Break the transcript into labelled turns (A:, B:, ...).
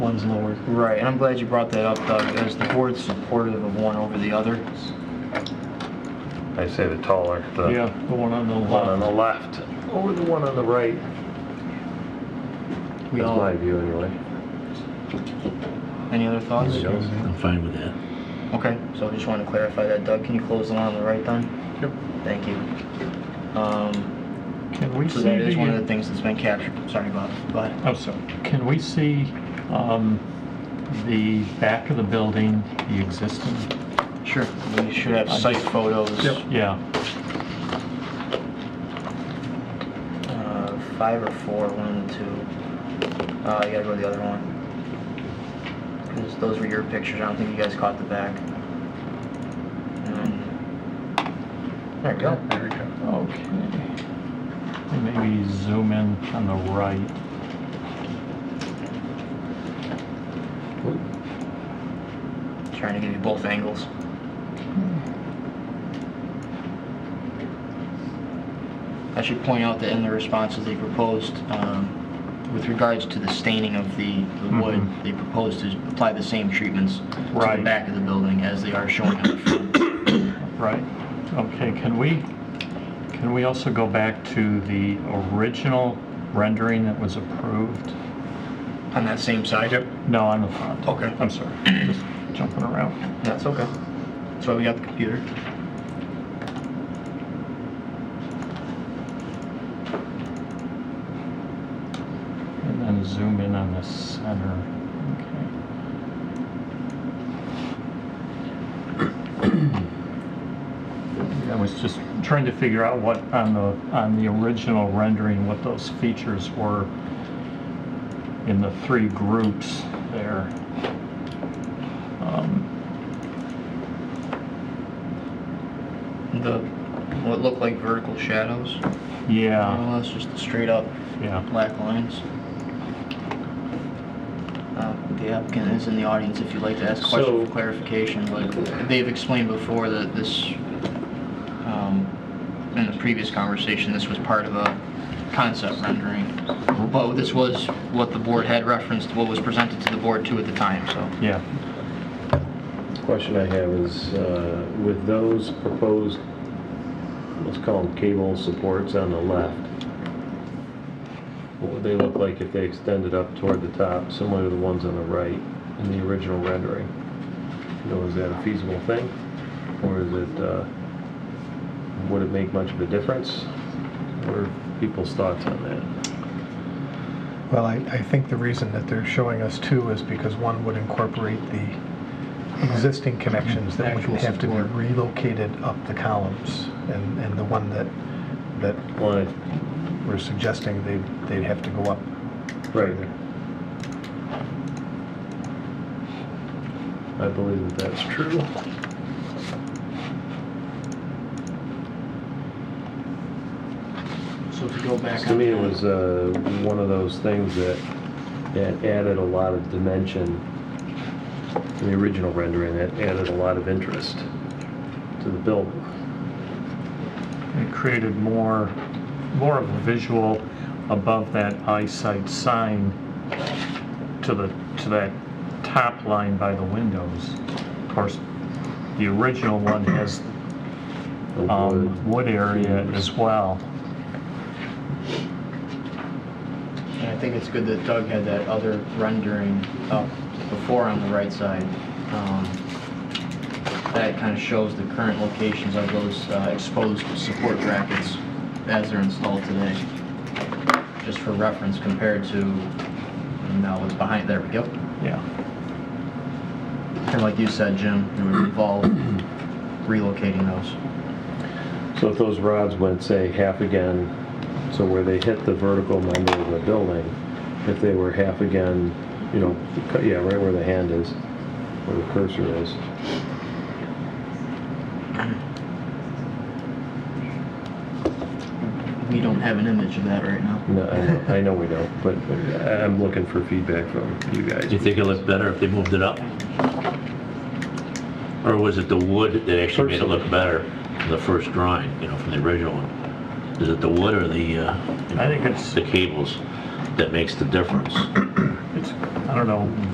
A: one's lower.
B: Right, and I'm glad you brought that up, Doug, as the board's supportive of one over the other.
C: I say the taller,
A: Yeah,
C: the
A: the one on the
C: one on the
A: left.
C: left over the one on the right.
B: We
C: That's
B: all-
C: my view anyway.
B: Any other thoughts?
C: Anybody else?
D: I'm fine with that.
B: Okay, so I just wanted to clarify that, Doug, can you close the line on the right then?
A: Yep.
B: Thank you. Um,
A: Can we
B: so
A: see
B: that is one of the
A: the, uh,
B: things that's been captured, sorry, Bob, go ahead.
A: oh, sorry. Can we see um, the back of the building, the existing?
B: Sure. We should have site photos.
A: Yeah,
B: Uh, five or four, one and two. Uh, you gotta go to the other one. 'Cause those were your pictures, I don't think you guys caught the back. Um, There we go.
C: There we go.
A: okay. And Maybe zoom in on the right.
B: Trying to give you both angles. I should point out that in the responses they proposed, um, with regards to the staining of the the wood,
A: Mhm.
B: they proposed to apply the same treatments to the
A: Right.
B: back of the building as they are showing on the front.
A: Right, okay, can we, can we also go back to the original rendering that was approved?
B: On that same side?
A: No, on the front.
B: Okay.
A: I'm sorry, just jumping around.
B: That's okay. That's why we got the computer.
A: And then zoom in on the center, okay. I was just trying to figure out what, on the, on the original rendering, what those features were in the three groups there. Um,
B: The, what looked like vertical shadows, more
A: Yeah,
B: or less, just straight up
A: yeah.
B: black lines. Uh, The applicant is in the audience if you'd like to ask a question
C: So-
B: for clarification, but they've explained before that this, um, in the previous conversation, this was part of a concept rendering. But this was what the board had referenced, what was presented to the board too at the time, so.
A: Yeah,
C: Question I have is, uh, with those proposed, let's call them cable supports on the left, what would they look like if they extended up toward the top, similar to the ones on the right in the original rendering? You know, is that a feasible thing? Or is it, uh, would it make much of a difference? What are people's thoughts on that?
E: Well, I, I think the reason that they're showing us two is because one would incorporate the existing connections that would
A: Actual
E: have to be
A: support.
E: relocated up the columns. And, and the one that, that
C: Well,
E: we're suggesting they, they'd have to go up.
C: Right. I believe that that's true.
B: So if you go back.
C: To me, it was uh, one of those things that, that added a lot of dimension. In the original rendering, that added a lot of interest to the building.
A: it created more, more of a visual above that eyesight sign to the, to that top line by the windows. Of course, the original one has
C: The
A: um,
C: wood.
A: wood area as well.
B: And I think it's good that Doug had that other rendering up before on the right side. Um, That kind of shows the current locations of those uh, exposed support brackets as they're installed today. Just for reference compared to, now what's behind, there we go.
A: Yeah,
B: And like you said, Jim, it would involve relocating those.
C: So if those rods went, say, half again, so where they hit the vertical member of the building, if they were half again, you know, cu- yeah, right where the hand is, where the cursor is,
B: We don't have an image of that right now.
C: No, I know, I know we don't, but uh, I'm looking for feedback from you guys.
D: Do you think it looked better if they moved it up? Or was it the wood that actually made it look better in the first drawing, you know, from the original one? Is it the wood or the, uh,
A: I think it's-
D: The cables that makes the difference?
A: it's, I don't know,